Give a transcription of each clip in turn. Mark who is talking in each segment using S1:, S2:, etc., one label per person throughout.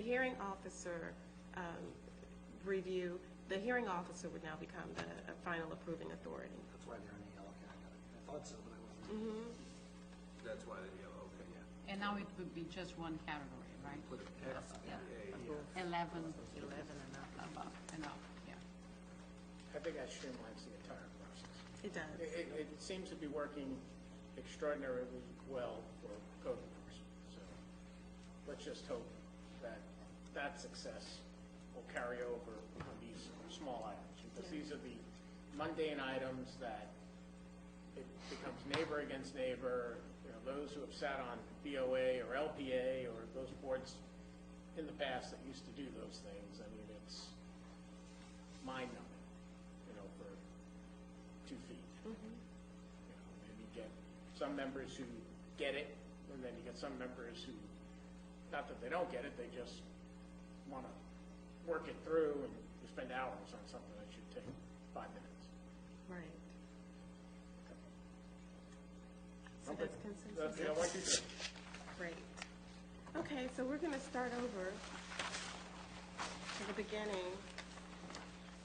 S1: hearing officer um, review, the hearing officer would now become the uh, final approving authority.
S2: That's why they're in the yellow, okay, I got it. I thought so, but I wasn't.
S3: Mm-hmm. That's why they're yellow, okay, yeah.
S4: And now it would be just one category, right?
S3: Put an X in A, yeah.
S4: Eleven. Eleven and up. Above and up, yeah.
S5: I think that streamlines the entire process.
S1: It does.
S5: It, it, it seems to be working extraordinarily well for code enforcement, so let's just hope that that success will carry over on these small items, because these are the mundane items that it becomes neighbor against neighbor, you know, those who have sat on BOA or LPA or those boards in the past that used to do those things, I mean, it's mind-numbing, you know, for two feet. You know, Maybe you get some members who get it, and then you get some members who, not that they don't get it, they just wanna work it through and you spend hours on something that should take five minutes.
S1: Right. So that's
S5: That's,
S1: consensus.
S5: you know, what you do.
S1: Great. Okay, so we're gonna start over to the beginning.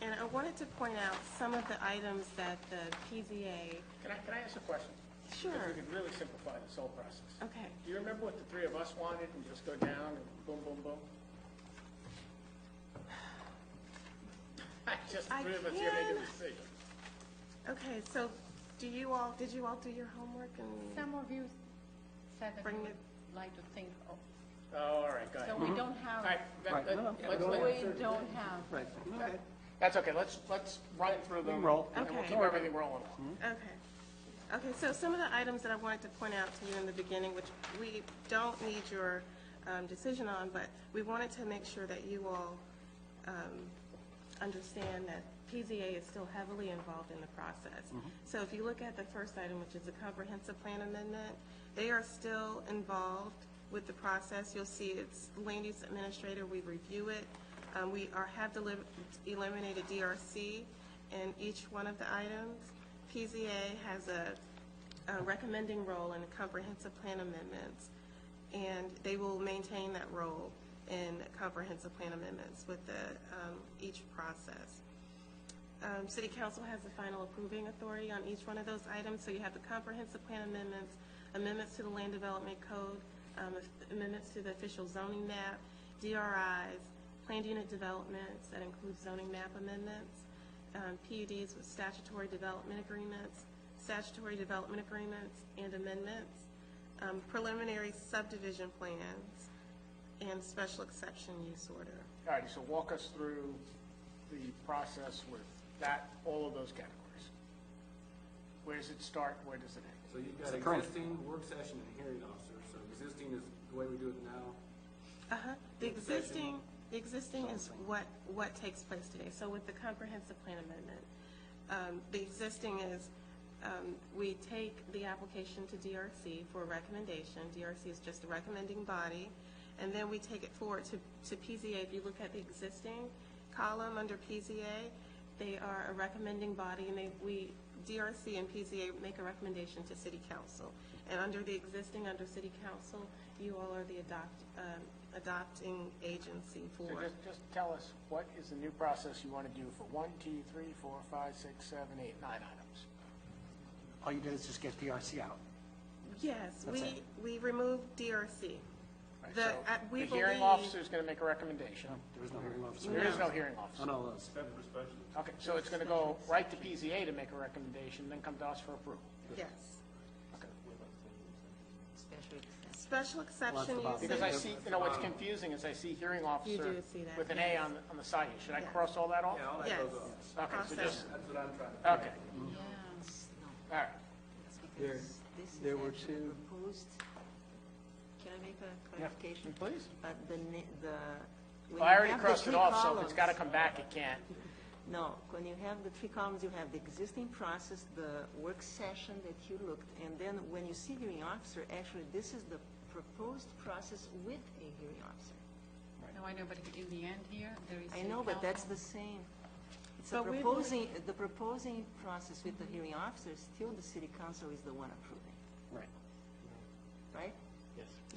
S1: And I wanted to point out some of the items that the PZA,
S5: Can I, can I ask a question? If
S1: Sure.
S5: we could really simplify this whole process.
S1: okay,
S5: Do you remember what the three of us wanted and just go down and boom, boom, boom? Just the
S1: I
S5: three of us here making
S1: can-
S5: a decision.
S1: okay, so do you all, did you all do your homework and?
S4: Some of you said that
S1: Bring
S4: you
S1: it-
S4: would like to think of,
S5: Oh, all right, go ahead.
S4: so we don't
S5: All
S4: have,
S5: right, that-
S6: Right,
S5: that-
S6: no, no,
S5: let's-
S6: go
S5: let's-
S4: we don't have.
S6: Right, okay.
S5: That's okay, let's, let's run through them.
S6: roll. Mm-hmm.
S5: And we'll
S1: Okay.
S5: keep everything rolling.
S1: Okay. Okay, so some of the items that I wanted to point out to you in the beginning, which we don't need your um, decision on, but we wanted to make sure that you all um, understand that PZA is still heavily involved in the process. So if you look at the first item, which is a comprehensive plan amendment, they are still involved with the process. You'll see it's land use administrator, we review it. Um, We are, have deli- eliminated DRC in each one of the items. PZA has a a recommending role in the comprehensive plan amendments, and they will maintain that role in comprehensive plan amendments with the, um, each process. Um, City Council has the final approving authority on each one of those items, so you have the comprehensive plan amendments, amendments to the land development code, um, amendments to the official zoning map, DRIs, planned unit developments that include zoning map amendments, um, PUDs with statutory development agreements, statutory development agreements and amendments, um, preliminary subdivision plans, and special exception use order.
S5: All righty, so walk us through the process with that, all of those categories. Where does it start, where does it end?
S3: So you've got existing, work session, and hearing officer, so existing is the way we do it now.
S1: Uh-huh. The
S3: Work session.
S1: existing, the existing is what, what takes place today. So with the comprehensive plan amendment, um, the existing is, um, we take the application to DRC for a recommendation. DRC is just a recommending body. And then we take it forward to, to PZA. If you look at the existing column under PZA, they are a recommending body and they, we, DRC and PZA make a recommendation to city council. And under the existing, under city council, you all are the adopt, um, adopting agency
S5: So
S1: for.
S5: just, just tell us, what is the new process you want to do for one, two, three, four, five, six, seven, eight, nine items?
S6: All you did is just get PRC out.
S1: Yes,
S6: That's
S1: we,
S6: it.
S1: we remove DRC.
S5: Right,
S1: The,
S5: so
S1: uh, we
S5: The hearing
S1: believe-
S5: officer is going to make a recommendation.
S6: There was no hearing officer.
S5: There is no hearing officer.
S6: On all those.
S5: Okay, so it's going to go right to PZA to make a recommendation, then come to us for approval.
S1: Yes. Special
S6: Well, that's
S1: exception
S6: the bottom.
S1: uses.
S5: Because I see, you know, what's confusing is I see hearing officer
S1: do see that,
S5: with an A
S1: yes.
S5: on, the- on the side here. Should I
S1: Yes.
S5: cross all that off?
S3: Yeah, all that
S1: Yes.
S3: goes off.
S5: Okay, so just,
S3: That's what I'm trying to.
S5: okay,
S4: Yes.
S5: all right.
S6: There- there were two-
S7: Proposed, can I make a clarification?
S5: Please.
S7: But the, ni- the. when
S5: Well, I
S7: you
S5: already
S7: have the
S5: crossed it
S7: three
S5: off, so if it's
S7: columns-
S5: got to come back, it can't.
S7: No, when you have the three columns, you have the existing process, the work session that you looked, and then when you see hearing officer, actually, this is the proposed process with a hearing officer.
S4: No, I know, but in the end here, there is.
S7: I
S4: a
S7: know, but that's
S4: council.
S7: the same. It's a
S1: But we believe-
S7: proposing, the proposing process with the hearing officer, still the city council is the one approving,
S6: Right.
S7: right?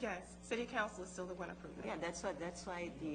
S1: Yes, city council is still the one approving.
S7: Yeah, that's why, that's why the